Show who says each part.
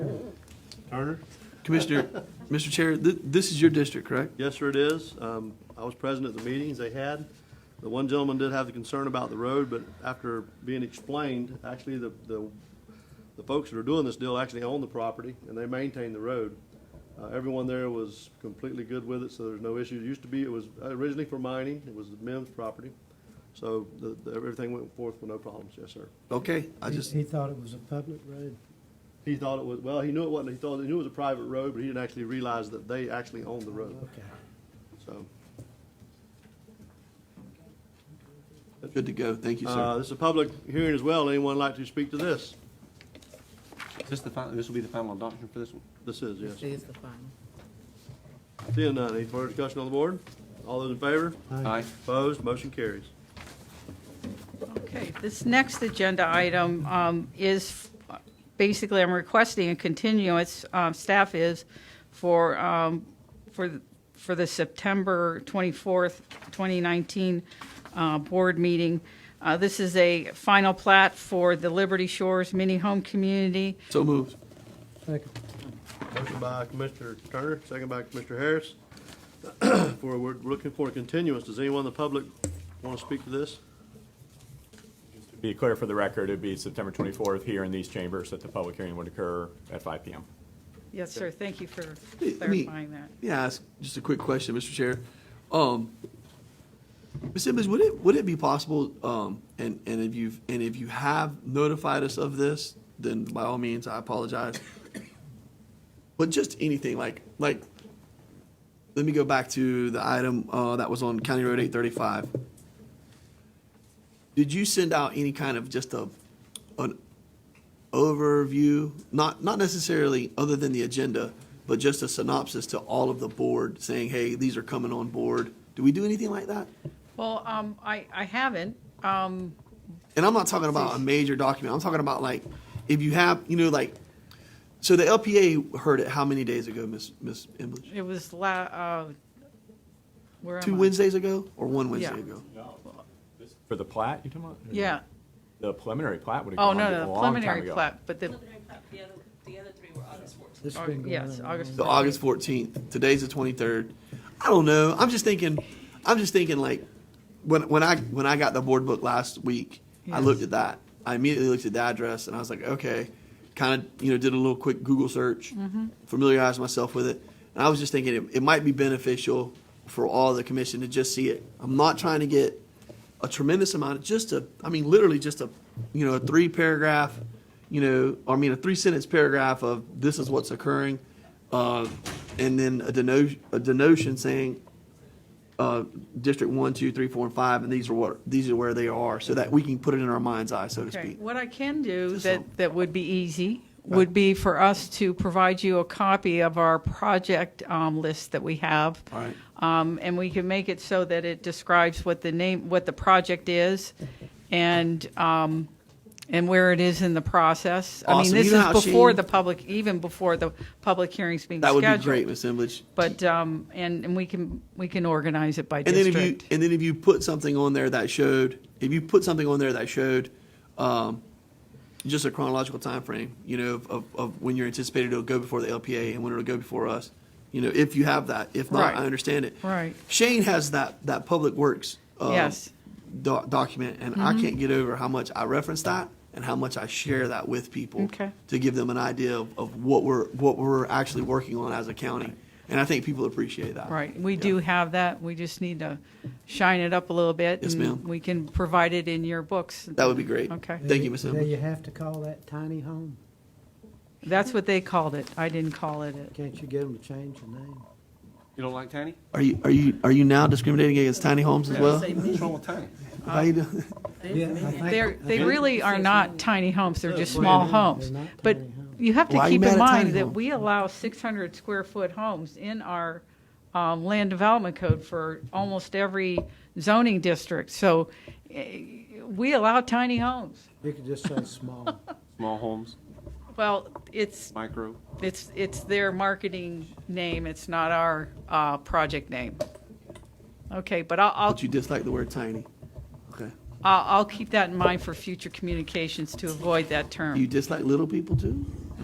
Speaker 1: Turner?
Speaker 2: Commissioner, Mr. Chair, th- this is your district, correct?
Speaker 1: Yes, sir, it is. Um, I was present at the meetings they had. The one gentleman did have the concern about the road, but after being explained, actually, the, the, the folks that are doing this deal actually own the property, and they maintain the road. Uh, everyone there was completely good with it, so there's no issue. It used to be, it was originally for mining, it was the Mims property. So the, the, everything went forth with no problems, yes, sir.
Speaker 2: Okay, I
Speaker 3: He-
Speaker 2: just,
Speaker 3: He thought it was a public road.
Speaker 1: He thought it was, well, he knew it wasn't, he thought, he knew it was a private road, but he didn't actually realize that they actually owned the road,
Speaker 3: Okay.
Speaker 1: so.
Speaker 2: good to go. Thank you,
Speaker 1: Uh,
Speaker 2: sir.
Speaker 1: This is a public hearing as well. Anyone like to speak to this?
Speaker 4: Is this the final, this will be the final adoption for this one?
Speaker 1: This is,
Speaker 5: This
Speaker 1: yes.
Speaker 5: is the final.
Speaker 1: Seeing none, any further discussion on the board? All those in favor?
Speaker 4: Aye.
Speaker 1: Opposed? Motion carries.
Speaker 5: Okay, this next agenda item um, is, f- basically, I'm requesting a continuance, um, staff is, for, um, for, th- for the September 24th, 2019 uh, board meeting. Uh, This is a final plat for the Liberty Shores Mini Home Community.
Speaker 2: So moved.
Speaker 3: Second.
Speaker 1: Motion by Commissioner Turner, second by Commissioner Harris. For, we're looking for a continuance. Does anyone in the public want to speak to this?
Speaker 6: Be clear for the record, it'd be September 24th here in these chambers that the public hearing would occur at 5 PM.
Speaker 5: Yes, sir, thank you for
Speaker 2: Let me-
Speaker 5: clarifying that.
Speaker 2: Yeah, ask just a quick question, Mr. Chair. Um, Ms. Simmons, would it, would it be possible, um, and, and if you've, and if you have notified us of this, then by all means, I apologize. But just anything, like, like, let me go back to the item, uh, that was on County Road eight thirty-five. Did you send out any kind of just a, an overview, not, not necessarily other than the agenda, but just a synopsis to all of the board saying, hey, these are coming on board? Do we do anything like that?
Speaker 5: Well, um, I, I haven't, um,
Speaker 2: And I'm not talking about a major document. I'm talking about like, if you have, you know, like, so the LPA heard it how many days ago, Miss Miss English?
Speaker 5: it was la, uh, where am I?
Speaker 2: Two Wednesdays ago or one Wednesday
Speaker 5: Yeah.
Speaker 2: ago?
Speaker 6: For the plat, you talking about?
Speaker 5: Yeah,
Speaker 6: The preliminary plat would have
Speaker 5: oh,
Speaker 6: gone
Speaker 5: no, no,
Speaker 6: a
Speaker 5: the
Speaker 6: long time
Speaker 5: preliminary
Speaker 6: ago.
Speaker 5: plat, but the,
Speaker 7: preliminary plat, the other, the other three were August 14th.
Speaker 3: This has
Speaker 5: Aug-
Speaker 3: been going on.
Speaker 5: Oh, yes,
Speaker 3: and
Speaker 5: August.
Speaker 2: The August fourteenth. Today's the twenty-third. I don't know. I'm just thinking. I'm just thinking like when when I when I got the board book last week, I
Speaker 5: Yes.
Speaker 2: looked at that. I immediately looked at the address and I was like, okay. Kind of you know did a little quick Google search, familiarized myself with it, and I was just thinking it, it might be beneficial for all the commission to just see it. I'm not trying to get a tremendous amount of just a I mean literally just a you know a three paragraph you know or I mean a three sentence paragraph of this is what's occurring uh, and then a denotion a denotion saying uh, district one two three four and five and these are what these are where they are so that we can put it in our mind's eye so to
Speaker 5: Okay,
Speaker 2: speak
Speaker 5: what I can do
Speaker 2: Just
Speaker 5: that,
Speaker 2: some-
Speaker 5: that would be easy would be for us to provide you a copy of our project um, list that we have.
Speaker 2: All right.
Speaker 5: Um, And we can make it so that it describes what the name, what the project is and, um, and where it is in the process. I mean,
Speaker 2: Awesome.
Speaker 5: this
Speaker 2: You know
Speaker 5: is
Speaker 2: how
Speaker 5: before
Speaker 2: she-
Speaker 5: the public, even before the public hearing's being
Speaker 2: that would
Speaker 5: scheduled.
Speaker 2: be great Ms. Emlich.
Speaker 5: But, um, and, and we can, we can organize it by
Speaker 2: and then if you
Speaker 5: district.
Speaker 2: and then if you put something on there that showed if you put something on there that showed um, just a chronological time frame you know of, of, of when you're anticipated it'll go before the lpa and when it'll go before us you know if you have that if not
Speaker 5: Right.
Speaker 2: i understand it
Speaker 5: Right.
Speaker 2: shane has that that public works uh,
Speaker 5: Yes. Mm-hmm.
Speaker 2: doc- document and i can't get over how much i reference that and how much i share that with people
Speaker 5: Okay.
Speaker 2: to give them an idea of, of what we're what we're actually working on as a county and i think people appreciate that
Speaker 5: Right, we do have that, we just need to shine it up a little bit.
Speaker 2: Yes,
Speaker 5: and
Speaker 2: ma'am.
Speaker 5: We can provide it in your books.
Speaker 2: that would be great
Speaker 5: Okay.
Speaker 2: thank you miss
Speaker 3: Do
Speaker 2: Emily.
Speaker 3: you have to call that tiny home?
Speaker 5: That's what they called it, I didn't call it it.
Speaker 3: Can't you get them to change the name?
Speaker 4: You don't like tiny?
Speaker 2: Are you are you are you now discriminating against tiny homes as well?
Speaker 4: What's wrong with tiny?
Speaker 2: How you doing?
Speaker 3: Yeah, I think-
Speaker 5: They're,
Speaker 3: I
Speaker 5: they
Speaker 3: think-
Speaker 5: really are not tiny homes, they're just small
Speaker 3: They're
Speaker 5: homes.
Speaker 3: not
Speaker 5: But
Speaker 3: tiny homes.
Speaker 5: you have
Speaker 2: Why
Speaker 5: to
Speaker 2: are you
Speaker 5: keep
Speaker 2: mad at
Speaker 5: in
Speaker 2: tiny
Speaker 5: mind that
Speaker 2: homes?
Speaker 5: we allow 600 square foot homes in our um, land development code for almost every zoning district. So eh, we allow tiny homes.
Speaker 3: You could just say small.
Speaker 4: Small homes,
Speaker 5: Well, it's,
Speaker 4: micro.
Speaker 5: It's, it's their marketing name, it's not our uh, project name. Okay, but I'll, I'll,
Speaker 2: But you dislike the word tiny. Okay.
Speaker 5: I'll I'll keep that in mind for future communications to avoid that
Speaker 2: You
Speaker 5: term.
Speaker 2: dislike little people too?